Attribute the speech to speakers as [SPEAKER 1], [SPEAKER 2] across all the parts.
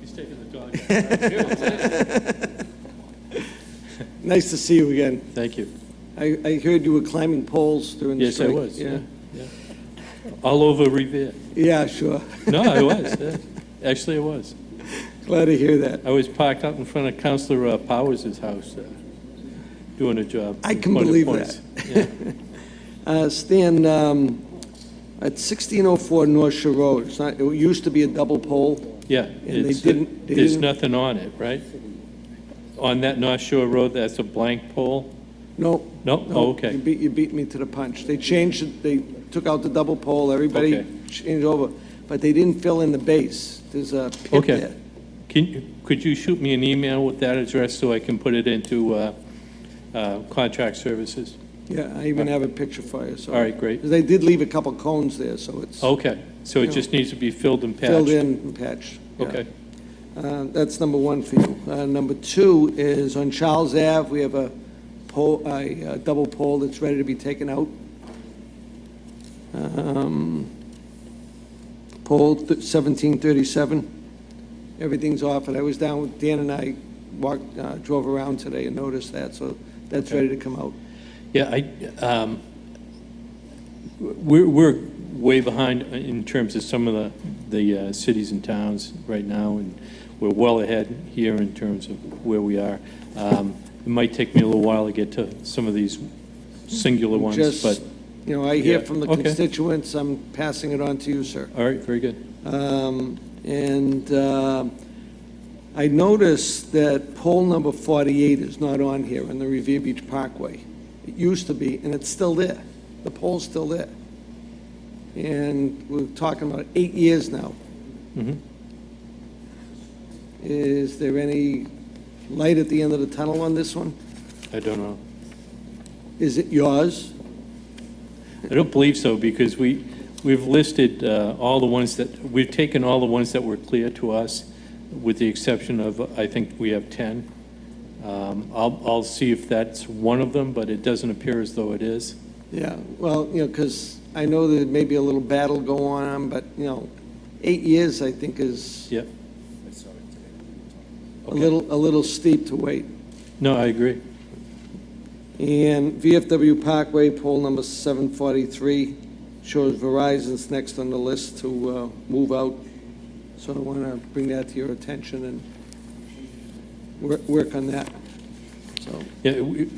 [SPEAKER 1] He's taking the dog. out.
[SPEAKER 2] Nice to see you again.
[SPEAKER 1] Thank you.
[SPEAKER 2] I, I heard you were climbing poles during the
[SPEAKER 1] Yes, I
[SPEAKER 2] strike.
[SPEAKER 1] was, yeah, yeah. All over Revere.
[SPEAKER 2] Yeah, sure.
[SPEAKER 1] No, I was, yeah. Actually, I was.
[SPEAKER 2] Glad to hear that.
[SPEAKER 1] I was parked out in front of Counselor uh, Powers' house, uh, doing a job.
[SPEAKER 2] I can
[SPEAKER 1] Point of
[SPEAKER 2] believe
[SPEAKER 1] points.
[SPEAKER 2] that. Uh, Stan, um, at 1604 North Shore Road, it's not, it used to be a double pole.
[SPEAKER 1] Yeah.
[SPEAKER 2] they
[SPEAKER 1] it's-
[SPEAKER 2] didn't- they
[SPEAKER 1] There's
[SPEAKER 2] didn't-
[SPEAKER 1] nothing on it, right? On that North Shore Road, that's a blank pole?
[SPEAKER 2] No.
[SPEAKER 1] No? Oh, okay.
[SPEAKER 2] You beat, you beat me to the punch. They changed, it. they took out the double pole, everybody
[SPEAKER 1] Okay.
[SPEAKER 2] changed over, but they didn't fill in the base. There's a pit
[SPEAKER 1] Okay.
[SPEAKER 2] there.
[SPEAKER 1] Can, you- could you shoot me an email with that address so I can put it into uh, uh, contract services?
[SPEAKER 2] Yeah, I even have a picture for you, so.
[SPEAKER 1] All right, great.
[SPEAKER 2] They did leave a couple cones there, so it's
[SPEAKER 1] Okay, so it just needs to be filled and patched?
[SPEAKER 2] filled in and patched. yeah.
[SPEAKER 1] Okay,
[SPEAKER 2] Uh, That's number one for you. Uh, Number two is on Charles Ave, we have a pole, a uh, double pole that's ready to be taken out. Um, Pole th- 1737, everything's off, and I was down, with Dan and I walked, uh, drove around today and noticed that, so that's ready to come out.
[SPEAKER 1] yeah, I, um, we're, we're way behind in terms of some of the, the uh, cities and towns right now, and we're well ahead here in terms of where we are. Um, It might take me a little while to get to some of these singular ones, but,
[SPEAKER 2] Just, you know, I hear
[SPEAKER 1] Yeah,
[SPEAKER 2] from the
[SPEAKER 1] okay.
[SPEAKER 2] constituents, I'm passing it on to you, sir.
[SPEAKER 1] all right, very good.
[SPEAKER 2] Um, And uh, I noticed that poll number 48 is not on here in the Revere Beach Parkway. It used to be, and it's still there. The poll's still there. And we're talking about eight years now.
[SPEAKER 1] Mhm.
[SPEAKER 2] Is there any light at the end of the tunnel on this one?
[SPEAKER 1] I don't know.
[SPEAKER 2] Is it yours?
[SPEAKER 1] I don't believe so, because we, we've listed uh, all the ones that, we've taken all the ones that were clear to us, with the exception of, uh, I think we have 10. Um, I'll, I'll see if that's one of them, but it doesn't appear as though it is.
[SPEAKER 2] Yeah, well, you know, because I know there may be a little battle going on, but, you know, eight years, I think, is
[SPEAKER 1] Yep.
[SPEAKER 2] a little, a little steep to wait.
[SPEAKER 1] No, I agree.
[SPEAKER 2] And VFW Parkway, poll number 743, shows Verizon's next on the list to uh, move out. So I want to bring that to your attention and wor- work on that. So,
[SPEAKER 1] Yeah, we-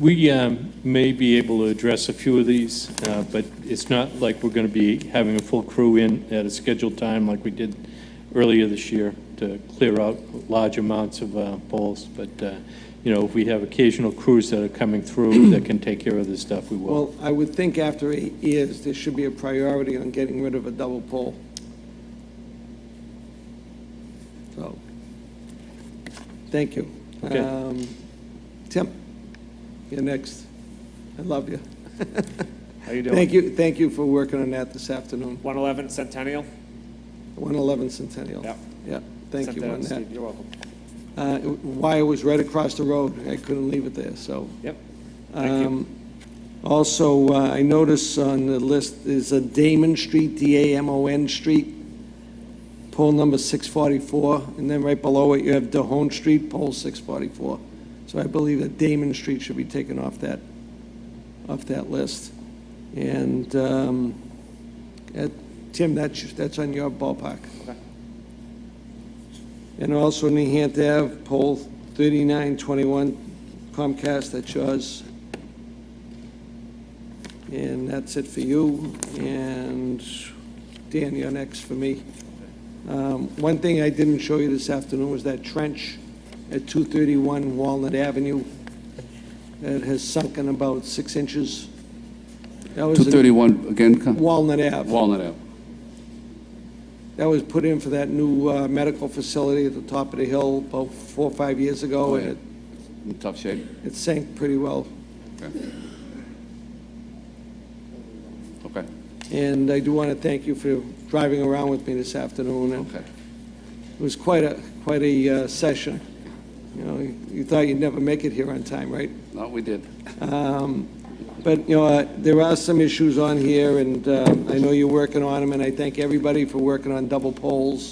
[SPEAKER 1] we um, may be able to address a few of these, uh, but it's not like we're going to be having a full crew in at a scheduled time like we did earlier this year to clear out large amounts of uh, polls. But, uh, you know, if we have occasional crews that are coming through that can take care of this stuff, we will.
[SPEAKER 2] well, I would think after eight years, there should be a priority on getting rid of a double pole. So, thank you.
[SPEAKER 1] Okay.
[SPEAKER 2] Um, Tim, you're next. I love you.
[SPEAKER 3] How you doing?
[SPEAKER 2] Thank you, thank you for working on that this afternoon,
[SPEAKER 3] 111 Centennial?
[SPEAKER 2] 111 Centennial.
[SPEAKER 3] Yep.
[SPEAKER 2] Yeah, thank you
[SPEAKER 3] Centennial,
[SPEAKER 2] on that.
[SPEAKER 3] Steve, You're welcome.
[SPEAKER 2] Uh, Wire was right across the road, I couldn't leave it there, so.
[SPEAKER 3] Yep. Thank you.
[SPEAKER 2] Um, Also, uh, I notice on the list is a Damon Street, D-A-M-O-N Street, pole number 644, and then right below it, you have Dahone Street, pole 644. So I believe that Damon Street should be taken off that, off that list. And, um, uh, Tim, that's, that's on your ballpark.
[SPEAKER 3] Okay.
[SPEAKER 2] And also New Hampton Ave, pole 3921 Comcast, that's yours. And that's it for you. And Dan, you're next for me. Um, One thing I didn't show you this afternoon was that trench at 231 Walnut Avenue that has sunk in about six inches. That was in
[SPEAKER 4] 231, again, Con-
[SPEAKER 2] Walnut Ave.
[SPEAKER 4] Walnut Ave.
[SPEAKER 2] That was put in for that new uh, medical facility at the top of the hill about four or five years ago, and it
[SPEAKER 4] In tough shape.
[SPEAKER 2] it sank pretty well.
[SPEAKER 4] Okay,
[SPEAKER 2] And I do want to thank you for driving around with me this afternoon. and
[SPEAKER 4] okay.
[SPEAKER 2] It was quite a, quite a uh, session. You know, you- you thought you'd never make it here on time, right?
[SPEAKER 4] No, we did.
[SPEAKER 2] But, you know, uh, there are some issues on here, and uh, I know you're working on them, and I thank everybody for working on double poles.